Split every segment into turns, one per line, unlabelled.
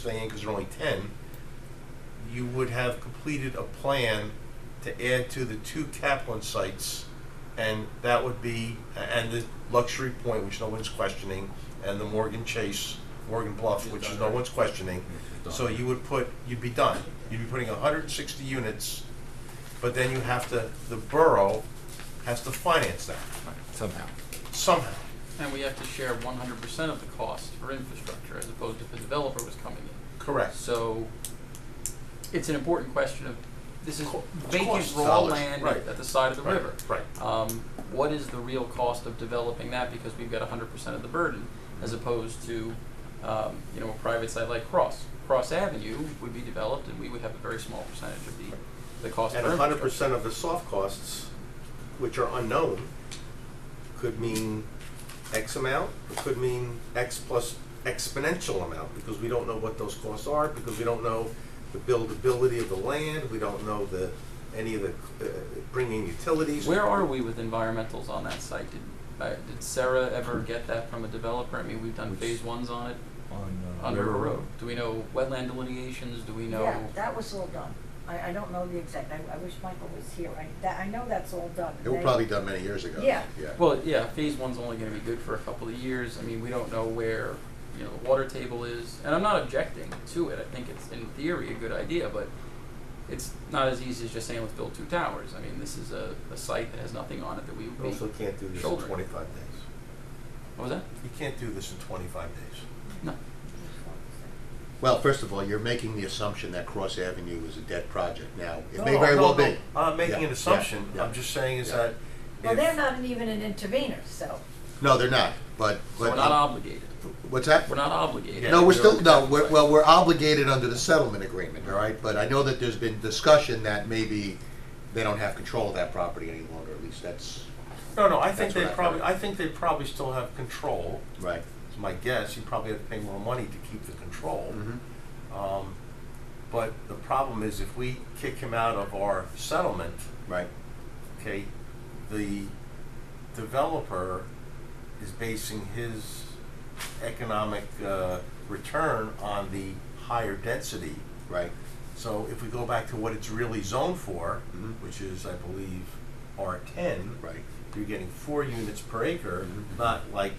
thing in because there are only ten, you would have completed a plan to add to the two Kaplan sites, and that would be, and the Luxury Point, which no one's questioning, and the Morgan Chase, Morgan Bluff, which is no one's questioning. So you would put, you'd be done. You'd be putting hundred and sixty units, but then you have to, the borough has to finance that
Somehow.
somehow.
And we have to share one hundred percent of the cost for infrastructure as opposed to if a developer was coming in.
Correct.
So it's an important question of, this is
Co- it's
vacant
cost
raw
dollars,
land
right.
at the side of the river.
Right.
Um, what is the real cost of developing that because we've got hundred percent of the burden as opposed to, um, you know, a private site like Cross. Cross Avenue would be developed and we would have a very small percentage of the, the cost of
And
infrastructure.
hundred percent of the soft costs, which are unknown, could mean X amount, it could mean X plus exponential amount, because we don't know what those costs are, because we don't know the buildability of the land, we don't know the, any of the, uh, bringing utilities.
Where are we with environmentals on that site? Did, uh, did Sarah ever get that from a developer? I mean, we've done
Which-
phase ones on it,
On uh,
on River Road. Do we know wetland delineations? Do we know?
Yeah, that was all done. I, I don't know the exact, I, I wish Michael was here, I, that, I know that's all done.
It was
They-
probably done many years ago.
Yeah.
Well, yeah, phase one's only gonna be good for a couple of years. I mean, we don't know where, you know, the water table is. And I'm not objecting to it. I think it's in theory a good idea, but it's not as easy as just saying, let's build two towers. I mean, this is a, a site that has nothing on it that we would
You
be.
also can't do this in
Shoulder.
twenty-five days.
What was that?
You can't do this in twenty-five days.
No.
Well, first of all, you're making the assumption that Cross Avenue is a dead project now. It may
No,
very
no,
well
no.
be.
I'm making
Yeah,
an assumption.
yeah, yeah.
I'm just saying is
Yeah.
that
Well,
if-
they're not even an intervener, so.
No, they're not, but,
So
but.
we're not obligated.
What's that?
We're not obligated.
Yeah.
No, we're still, no,
Right.
we're, well, we're obligated under the settlement agreement, all right? But I know that there's been discussion that maybe they don't have control of that property any longer, at least that's,
No, no, I think
That's
they
what I
probably,
heard.
I think they probably still have control.
right.
It's my guess. You probably have to pay more money to keep the control.
Mm-hmm.
Mhm.
Um, but the problem is if we kick him out of our settlement,
Right,
okay, the developer is basing his economic uh, return on the higher density.
right.
So if we go back to what it's really zoned for,
Mhm.
which is, I believe, R10.
Right.
You're getting four units per acre,
Mhm.
not like,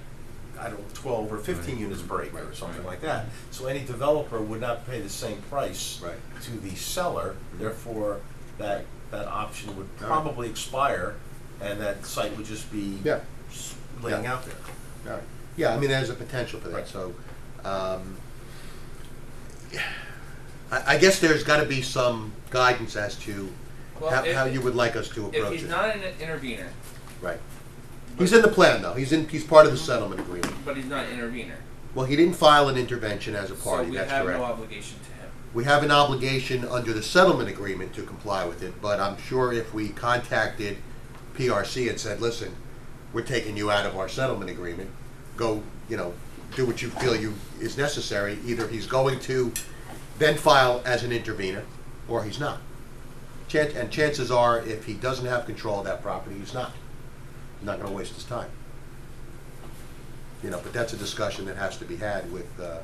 I don't, twelve or fifteen
Right.
units per acre or
Right,
something
right.
like that. So any developer would not pay the same price
Right.
to the seller,
Mhm.
therefore, that, that option would
All right.
probably expire, and that site would just be
Yeah.
s- laying
Yeah.
out there.
All right. Yeah, I mean, there's a potential for
Right.
that, so, um, I, I guess there's gotta be some guidance as to
Well,
how,
if-
how you would like us to
If
approach
he's
it.
not an intervener,
Right. He's in the plan, though, he's in, he's part of the settlement agreement.
but he's not an intervener,
Well, he didn't file an intervention as a
so
party,
we
that's
have
correct.
no obligation to him.
We have an obligation under the settlement agreement to comply with it, but I'm sure if we contacted PRC and said, listen, we're taking you out of our settlement agreement, go, you know, do what you feel you, is necessary, either he's going to then file as an intervener, or he's not. Chan and chances are, if he doesn't have control of that property, he's not. He's not gonna waste his time. You know, but that's a discussion that has to be had with, uh,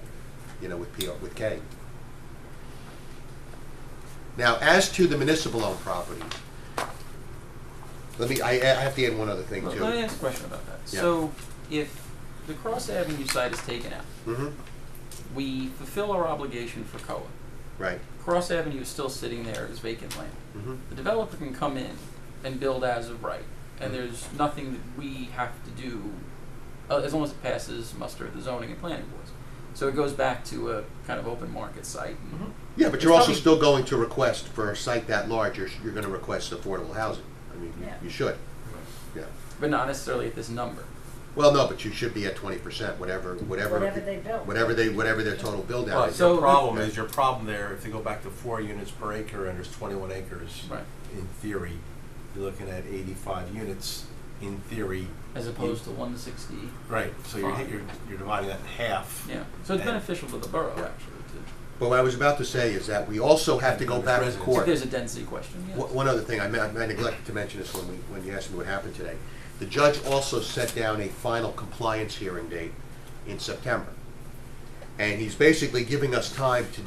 you know, with PR, with K. Now, as to the municipal-owned properties, let me, I, I have to add one other thing
Let-
too.
Let me ask a question about that.
Yeah.
So, if the Cross Avenue site is taken out,
Mm-hmm,
we fulfill our obligation for COA.
right,
Cross Avenue is still sitting there as vacant land.
mm-hmm,
The developer can come in and build as of right,
Mm-hmm.
and there's nothing that we have to do uh, as long as it passes muster of the zoning and planning boards. So it goes back to a kind of open market site. and-
yeah, but
It's
you're also
probably-
still going to request for a site that large, you're, you're gonna request affordable housing, I mean, you-
Yeah.
you should,
Mm-hmm.
yeah.
but not necessarily at this number.
Well, no, but you should be at twenty percent, whatever, whatever.
Whatever they build.
Whatever they, whatever their total build out
But
is.
so-
your problem
Yeah.
is, your problem there, if they go back to four units per acre and there's twenty-one acres,
Right.
in theory, you're looking at eighty-five units, in theory.
As opposed to 160.
Right, so you're,
Fine.
you're, you're dividing that in half.
Yeah. So it's
And-
beneficial to the borough,
Yeah.
actually. To,
But what I was about to say is that we also have to go back to
Residents.
court.
if there's a density question. yes.
One one other thing, I me- I neglected to mention this when we, when you asked me what happened today. The judge also set down a final compliance hearing date in September. And he's basically giving us time to